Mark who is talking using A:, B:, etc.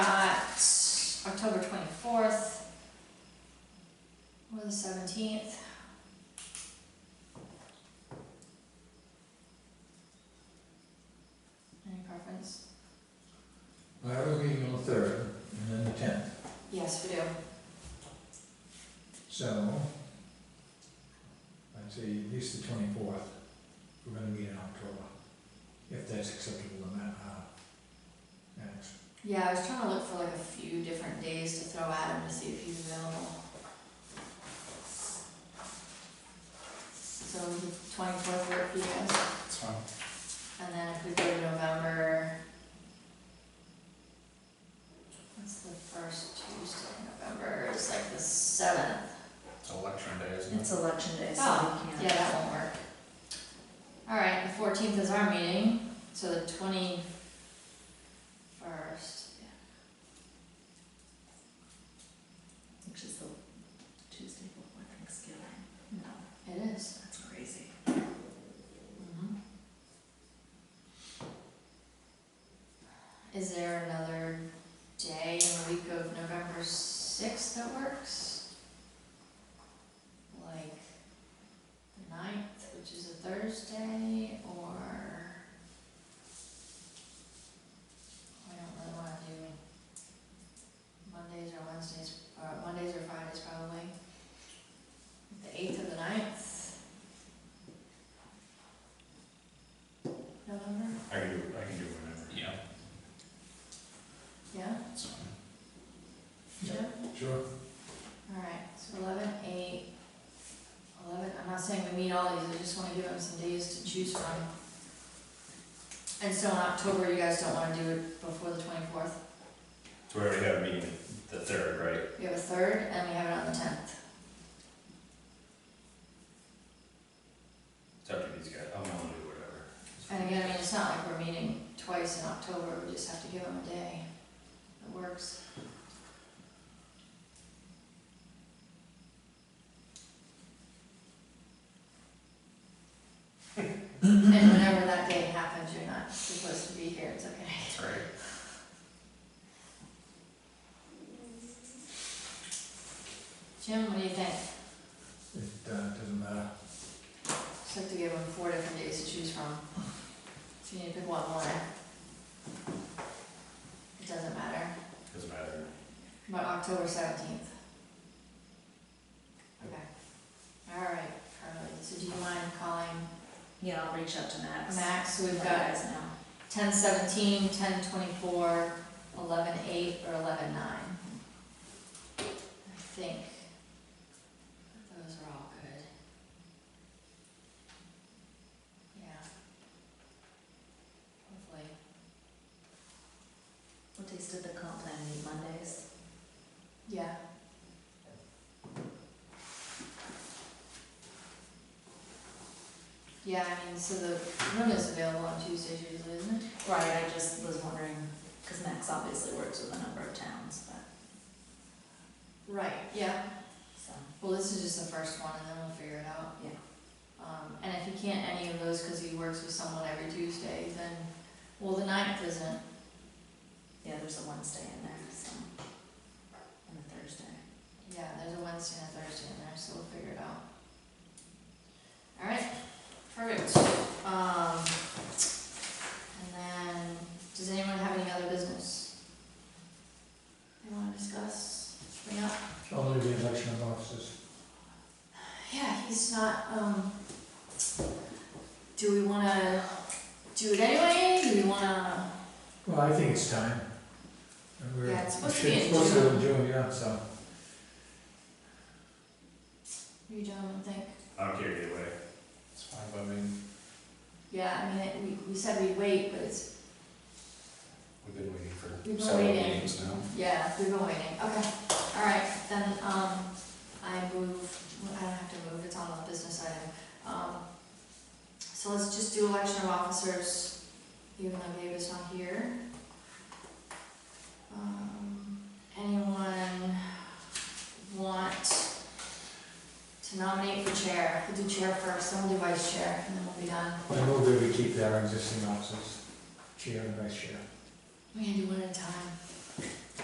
A: the seventeenth. Any preference?
B: I have a meeting on the third and then the tenth,
A: Yes, we do.
B: so I'd say at least the twenty-fourth, we're gonna meet in October, if that's acceptable in that, uh, acts.
A: Yeah, I was trying to look for like a few different days to throw at him to see if he's available. So twenty-fourth work for you guys?
C: That's fine.
A: And then if we go to November. What's the first Tuesday in November? It's like the seventh.
C: It's election day, isn't it?
D: It's election day, so
A: Oh,
D: we
A: yeah,
D: can't.
A: that won't work. Alright, the fourteenth is our meeting, so the twenty-first,
D: Which is the Tuesday before Thanksgiving.
A: no, it is.
D: That's crazy.
A: Mhm. Is there another day in the week of November sixth that works? Like the ninth, which is a Thursday, or? I don't really wanna do Mondays or Wednesdays, or Mondays or Fridays probably. The eighth or the ninth, November,
C: I can do, I can do whatever. Yeah.
A: yeah?
C: It's fine.
A: Yeah,
B: Sure.
A: alright, so eleven, eight, eleven, I'm not saying we meet all these, I just wanna give them some days to choose from. And so in October, you guys don't wanna do it before the twenty-fourth,
C: So we already have a meeting the third, right?
A: we have a third, and we have it on the tenth.
C: It's up to these guys, I'm willing to do whatever.
A: And again, I mean, it's not like we're meeting twice in October, we just have to give them a day that works. And whenever that day happens, you're not supposed to be here, it's okay.
C: That's right.
A: Jim, what do you think?
B: It, uh, doesn't matter.
A: Just have to give them four different days to choose from. So you need to pick one more. It doesn't matter,
C: Doesn't matter.
A: but October seventeenth. Okay. All right, Carly, so do you mind calling
D: Yeah, I'll reach out to Max.
A: Max? So We've
D: Let
A: got
D: guys know.
A: ten seventeen, ten twenty-four, eleven eight, or eleven nine. I think those are all good. Yeah. Hopefully.
D: What days did the comp plan meet? Mondays?
A: Yeah. Yeah, I mean, so the room is available on Tuesdays usually, isn't it?
D: Right, I just was wondering, because Max obviously works with a number of towns, but,
A: Right. Yeah,
D: so,
A: well, this is just the first one and then we'll figure it out.
D: Yeah.
A: Um, and if he can't any of those, cause he works with someone every Tuesday, then, well, the ninth isn't,
D: yeah, there's a Wednesday in there, so. And a Thursday.
A: yeah, there's a Wednesday and a Thursday in there, so we'll figure it out. Alright, perfect, um, and then, does anyone have any other business? They wanna discuss, bring up?
B: Only the election of officers.
A: Yeah, he's not, um, do we wanna do it anyway, do we wanna,
B: Well, I think it's time. And we're-
A: Yeah, it's supposed to be in
B: It's supposed to be in
A: June.
B: June, yeah, so.
A: you gentlemen think?
C: I don't care either way. It's fine by me.
A: Yeah, I mean, it- we, we said we'd wait, but it's,
C: We've been waiting
A: We've been
C: for several
A: waiting.
C: meetings now.
A: Yeah, we've been waiting, okay, alright, then, um, I move, I don't have to move, it's on the business item. Um, so let's just do election of officers, even though Gabe is not here. Um, anyone want to nominate for chair? We'll do chair first, then we'll do vice chair, and then we'll be done.
B: I move that we keep our existing officers, chair and vice chair.
A: We can do one at a time.